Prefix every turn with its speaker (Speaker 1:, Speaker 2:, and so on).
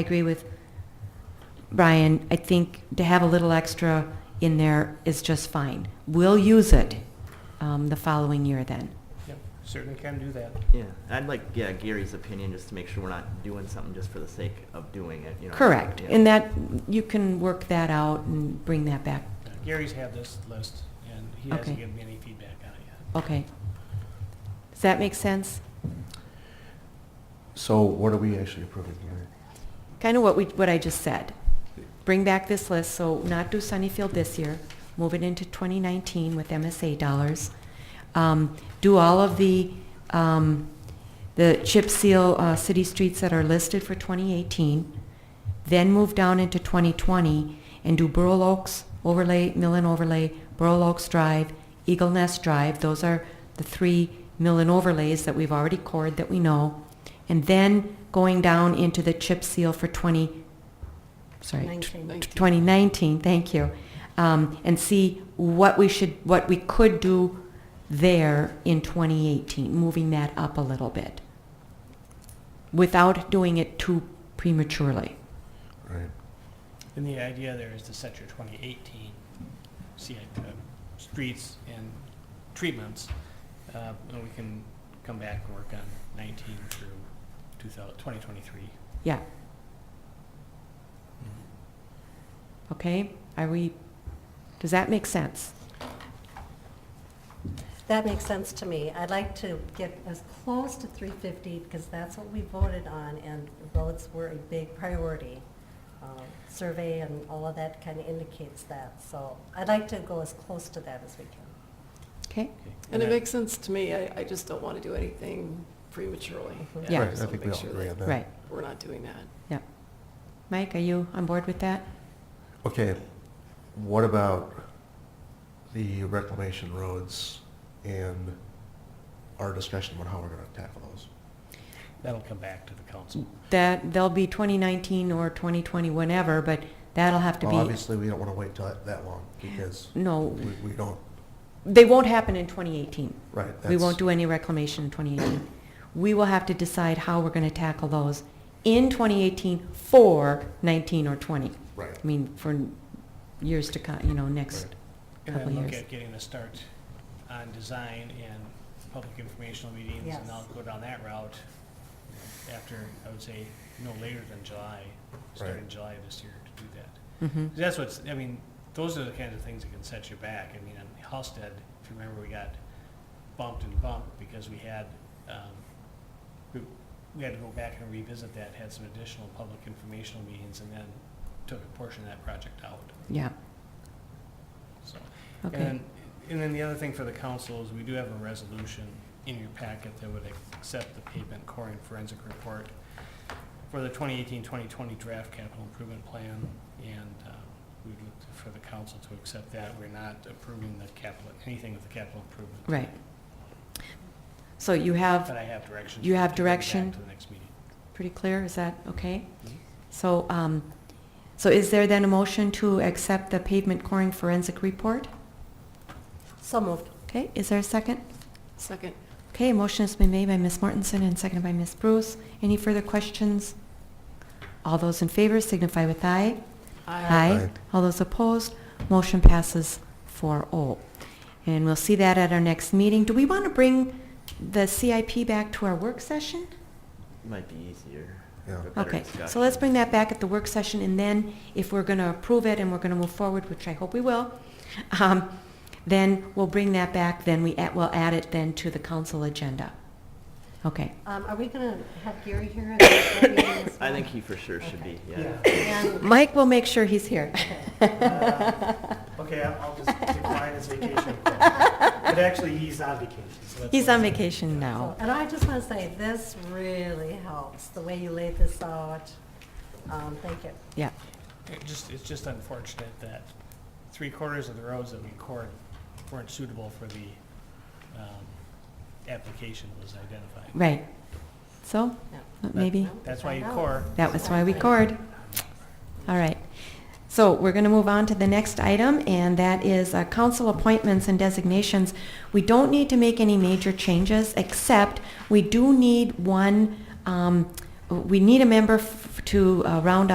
Speaker 1: I agree with Brian. I think to have a little extra in there is just fine. We'll use it um, the following year then.
Speaker 2: Yep, certainly can do that.
Speaker 3: Yeah, and I'd like, yeah, Gary's opinion, just to make sure we're not doing something just for the sake of doing it, you know.
Speaker 1: Correct.
Speaker 3: yeah.
Speaker 1: And that, you can work that out and bring that back.
Speaker 2: Gary's had this list, and he hasn't
Speaker 1: Okay.
Speaker 2: given me any feedback on it yet.
Speaker 1: Okay. Does that make sense?
Speaker 4: So what are we actually approving here?
Speaker 1: Kind of what we, what I just said. Bring back this list, so not do Sunnyfield this year, move it into 2019 with MSA dollars. Um, Do all of the, um, the chip seal uh, city streets that are listed for 2018, then move down into 2020 and do Burl Oaks overlay, mill and overlay, Burl Oaks Drive, Eagle Nest Drive, those are the three mill and overlays that we've already cored that we know, and then going down into the chip seal for 20, sorry, tw-
Speaker 5: Nineteen.
Speaker 1: 2019, thank you, um, and see what we should, what we could do there in 2018, moving that up a little bit, without doing it too prematurely.
Speaker 4: Right.
Speaker 2: And the idea there is to set your 2018 CIP, uh, streets and treatments, uh, and we can come back and work on 19 through 2000 2023.
Speaker 1: Yeah. Okay, are we, does that make sense?
Speaker 5: That makes sense to me. I'd like to get as close to 350 because that's what we voted on and roads were a big priority. Um, Survey and all of that kind of indicates that. So I'd like to go as close to that as we can.
Speaker 1: Okay,
Speaker 2: Okay.
Speaker 6: And it
Speaker 2: that-
Speaker 6: makes sense to me, I, I just don't want to do anything prematurely.
Speaker 1: Yeah.
Speaker 4: Right,
Speaker 6: So
Speaker 4: I think we
Speaker 6: make
Speaker 4: all
Speaker 6: sure
Speaker 4: agree
Speaker 6: that
Speaker 4: on that.
Speaker 1: right,
Speaker 6: We're not doing that.
Speaker 1: yeah. Mike, are you on board with that?
Speaker 4: Okay, what about the reclamation roads and our discussion about how we're gonna tackle those?
Speaker 2: That'll come back to the council.
Speaker 1: That, they'll be 2019 or 2020, whenever, but that'll have to
Speaker 4: Well,
Speaker 1: be,
Speaker 4: obviously, we don't wanna wait till that- that long, because
Speaker 1: no,
Speaker 4: we, we don't,
Speaker 1: they won't happen in 2018.
Speaker 4: right,
Speaker 1: We
Speaker 4: that's-
Speaker 1: won't do any reclamation in 2018. We will have to decide how we're going to tackle those in 2018 for 19 or 20.
Speaker 4: Right,
Speaker 1: I mean, for years to come, you know, next
Speaker 4: Right.
Speaker 2: And then
Speaker 1: Couple
Speaker 2: look
Speaker 1: years.
Speaker 2: at getting a start on design and public informational meetings,
Speaker 5: Yes.
Speaker 2: and I'll go down that route after, I would say, no later than July, start in
Speaker 4: Right.
Speaker 2: July of this year to do that.
Speaker 1: Mhm.
Speaker 2: That's what's, I mean, those are the kinds of things that can set you back. I mean, on Halsted, if you remember, we got bumped and bumped because we had, um, we- we had to go back and revisit that, had some additional public informational meetings, and then took a portion of that project out,
Speaker 1: Yeah,
Speaker 2: so.
Speaker 1: okay.
Speaker 2: And, and then the other thing for the council is we do have a resolution in your packet that would accept the pavement core and forensic report for the 2018-2020 draft capital improvement plan, and uh, we'd look to- for the council to accept that. We're not approving the capital, anything with the capital improvement.
Speaker 1: Right. So you have,
Speaker 2: But I have direction.
Speaker 1: You have
Speaker 2: to bring back
Speaker 1: direction?
Speaker 2: To the next meeting.
Speaker 1: pretty clear, is that okay?
Speaker 2: Mhm.
Speaker 1: So, um, so is there then a motion to accept the pavement coring forensic report?
Speaker 5: So moved.
Speaker 1: Okay, is there a second?
Speaker 6: Second,
Speaker 1: Okay, a motion has been made by Ms. Mortensen and seconded by Ms. Bruce. Any further questions? All those in favor signify with aye.
Speaker 6: aye.
Speaker 4: Aye.
Speaker 1: All those opposed, motion passes 4-0. And we'll see that at our next meeting. Do we want to bring the CIP back to our work session?
Speaker 3: Might be easier.
Speaker 4: Yeah.
Speaker 3: for better
Speaker 1: Okay, so
Speaker 3: discussion.
Speaker 1: let's bring that back at the work session, and then if we're going to approve it and we're going to move forward, which I hope we will, um, then we'll bring that back, then we, add- we'll add it then to the council agenda. Okay,
Speaker 5: Um, Are we going to have Gary here? at the meeting as
Speaker 3: I
Speaker 5: well?
Speaker 3: think he for sure should be, yeah.
Speaker 5: And-
Speaker 1: Mike will make sure he's here.
Speaker 7: Okay, I'll I'll just decline his vacation. But actually, he's on vacation, so that's
Speaker 1: He's
Speaker 7: why
Speaker 1: on
Speaker 7: it's-
Speaker 1: vacation
Speaker 5: So,
Speaker 1: now.
Speaker 5: And I just want to say, this really helps, the way you laid this out. Um, Thank you.
Speaker 1: Yeah,
Speaker 2: It just, it's just unfortunate that three quarters of the roads that we cored weren't suitable for the um, application that was identified.
Speaker 1: right. So,
Speaker 5: Yeah.
Speaker 1: maybe?
Speaker 2: That's why you Um,
Speaker 5: Find out.
Speaker 2: core.
Speaker 1: That was why we cored. All right. So we're going to move on to the next item, and that is uh, council appointments and designations. We don't need to make any major changes, except we do need one um, we need a member f- to uh, round